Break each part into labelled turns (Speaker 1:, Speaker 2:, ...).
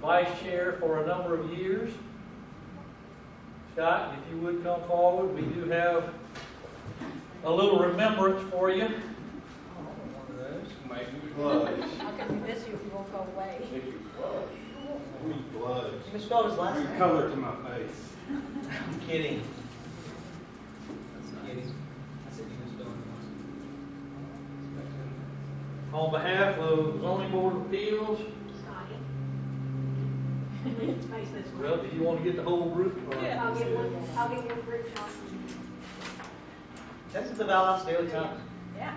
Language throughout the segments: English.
Speaker 1: vice chair for a number of years. Scott, if you would come forward, we do have a little remembrance for you.
Speaker 2: Make me blush.
Speaker 3: How can we miss you if you won't go away?
Speaker 2: Make you blush. Me blush.
Speaker 4: You spelled his last
Speaker 2: Bring
Speaker 4: name.
Speaker 2: color to my face.
Speaker 4: I'm kidding. I'm kidding. I said you misspelled it last name.
Speaker 1: On behalf of zoning board of appeals,
Speaker 5: Scotty. Please face this way.
Speaker 1: well, do you want to get the whole group? or-
Speaker 5: I'll get one, I'll get one for each one.
Speaker 4: Texas the Valdosta Daily Times.
Speaker 5: Yeah.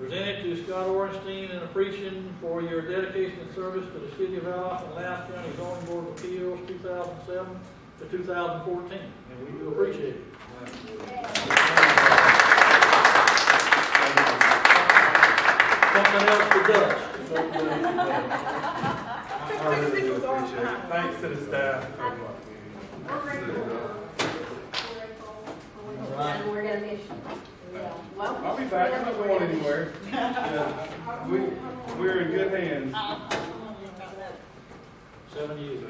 Speaker 1: Presented to Scott Orenstein in appreciation for your dedication and service to the city of Alaf and Loudoun County zoning board of appeals, two thousand seven to two thousand fourteen, and we do appreciate it. Something else for dust.
Speaker 2: I really do appreciate it. Thanks to the staff.
Speaker 5: We're grateful. We're grateful.
Speaker 4: All right.
Speaker 5: And we're gonna miss you. We will. Well,
Speaker 2: I'll be back. I'm not going anywhere. Yeah. We, we're in good hands.
Speaker 1: Seven years.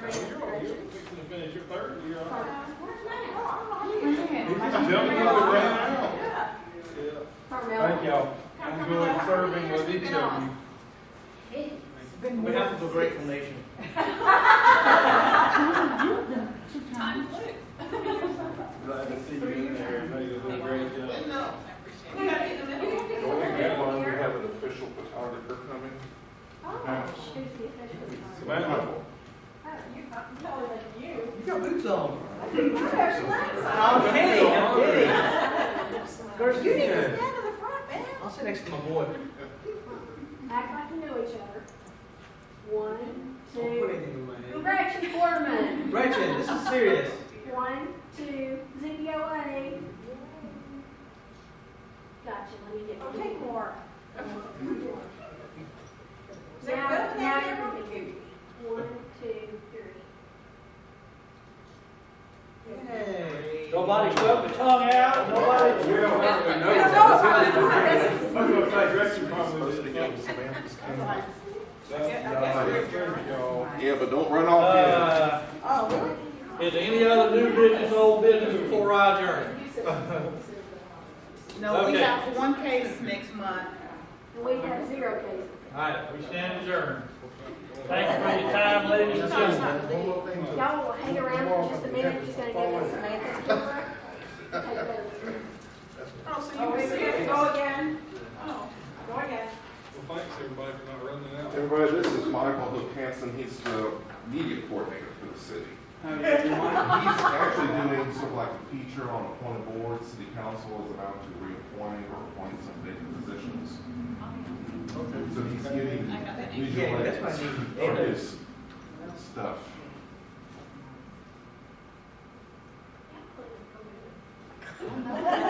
Speaker 2: Fixing to finish your third year.
Speaker 5: Carmel.
Speaker 2: Jumping up and down. Yeah. Thank y'all.
Speaker 5: Come on,
Speaker 2: Enjoyed
Speaker 5: come on.
Speaker 2: serving with each of you.
Speaker 4: We have to a grateful nation.
Speaker 2: Glad to see you in there. Everybody did a great job.
Speaker 6: we have an official photographer coming.
Speaker 5: Oh, there's the official.
Speaker 2: Samantha,
Speaker 5: Oh, you, I'm taller than you.
Speaker 4: You got boots on.
Speaker 5: I think you're actually-
Speaker 4: I'm kidding, I'm kidding. Girls,
Speaker 5: You
Speaker 4: you
Speaker 5: need
Speaker 4: did
Speaker 5: to
Speaker 4: it.
Speaker 5: stand in the front, man.
Speaker 4: I'll sit next to my boy.
Speaker 5: Act like you know each other. One,
Speaker 4: Don't put
Speaker 5: two.
Speaker 4: anything in my hand.
Speaker 5: Gretchen Foreman.
Speaker 4: Gretchen, this is serious.
Speaker 5: One, two, ZBOA. Gotcha, let me get. I'll take more. Now, now everything. One, two, three.
Speaker 4: Hey.
Speaker 1: Nobody swept the tongue out, nobody.
Speaker 2: we don't have to know. I was gonna say, Gretchen probably
Speaker 6: Supposed to
Speaker 2: did
Speaker 6: get
Speaker 2: something.
Speaker 6: Samantha's.
Speaker 2: That's- Thank y'all.
Speaker 6: Yeah, but don't run off yet.
Speaker 1: Uh,
Speaker 4: Oh, really?
Speaker 1: is there any other new business, old business before I adjourn?
Speaker 7: No, we
Speaker 1: Okay.
Speaker 7: have one case next month.
Speaker 5: And we have zero cases.
Speaker 1: All right, we stand adjourned. Thanks for your time, ladies and gentlemen.
Speaker 2: One more thing to-
Speaker 5: Y'all will hang around for just a minute, just gonna go to Samantha's door. Take a vote.
Speaker 7: Oh, so you can go again? Oh, go again.
Speaker 2: Well, thanks everybody for not running out.
Speaker 6: Everybody, this is Michael Hook Hansen. He's the media coordinator for the city. He's actually doing sort of like a feature on appointed boards. City council is about to reappoint or appoint some vacant positions. So he's getting
Speaker 4: Yeah,
Speaker 6: visual
Speaker 4: that's what I
Speaker 6: aids
Speaker 4: need.
Speaker 6: for his stuff.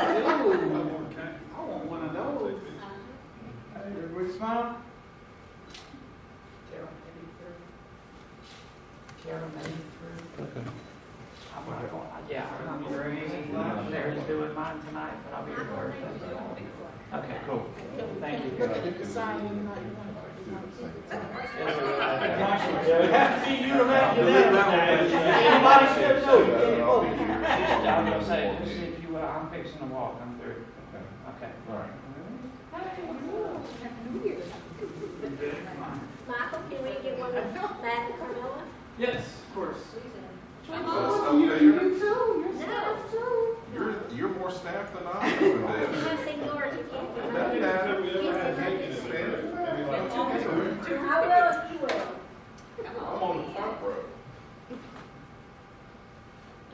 Speaker 2: Okay. I want one of those.
Speaker 4: Everybody smile. Tara, maybe through. Tara, maybe through. I'm not going, yeah, I'm not going to, Larry's doing mine tonight, but I'll be here Thursday. Okay, cool. Thank you.
Speaker 1: We have to see you to make your decision. Anybody steps over.
Speaker 6: And I'll be here.
Speaker 8: I'm gonna say, just if you, uh, I'm fixing to walk, I'm through.
Speaker 6: Okay.
Speaker 8: Okay.
Speaker 6: All right.
Speaker 5: Michael, can we get one back to Carmella?
Speaker 8: Yes, of course.
Speaker 6: Oh, you, you're,
Speaker 5: No.
Speaker 6: you're, you're more staff than I am.
Speaker 5: I'm
Speaker 6: with
Speaker 5: not seniority, can't be
Speaker 6: that.
Speaker 5: mine.
Speaker 6: Yeah.
Speaker 2: Have we ever had Jenkins in there? Maybe like two weeks ago.
Speaker 5: I will, if you will.
Speaker 6: I'm on the front row.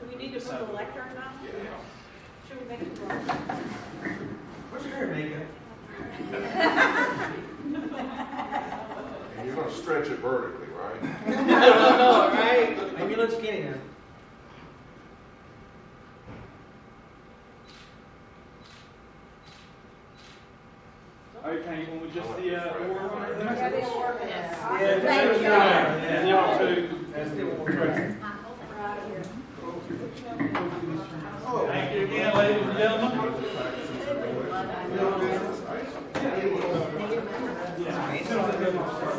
Speaker 7: Do we need to put the lectern up? Should we make it work?
Speaker 4: What's your hair, Mika?
Speaker 6: And you're gonna stretch it vertically, right?
Speaker 4: I don't know, right? Maybe you look skinny now.
Speaker 8: Okay, well, we just the, uh,
Speaker 7: Yeah, they
Speaker 8: order.
Speaker 7: work it out.
Speaker 4: Yeah,
Speaker 5: Thank
Speaker 1: uh,
Speaker 4: that's
Speaker 5: you.
Speaker 4: right.
Speaker 2: And y'all too.
Speaker 4: That's the one.
Speaker 5: Michael, we're out of here.
Speaker 1: Thank you again, ladies and gentlemen.
Speaker 6: No business. I-
Speaker 4: It's amazing.
Speaker 1: business.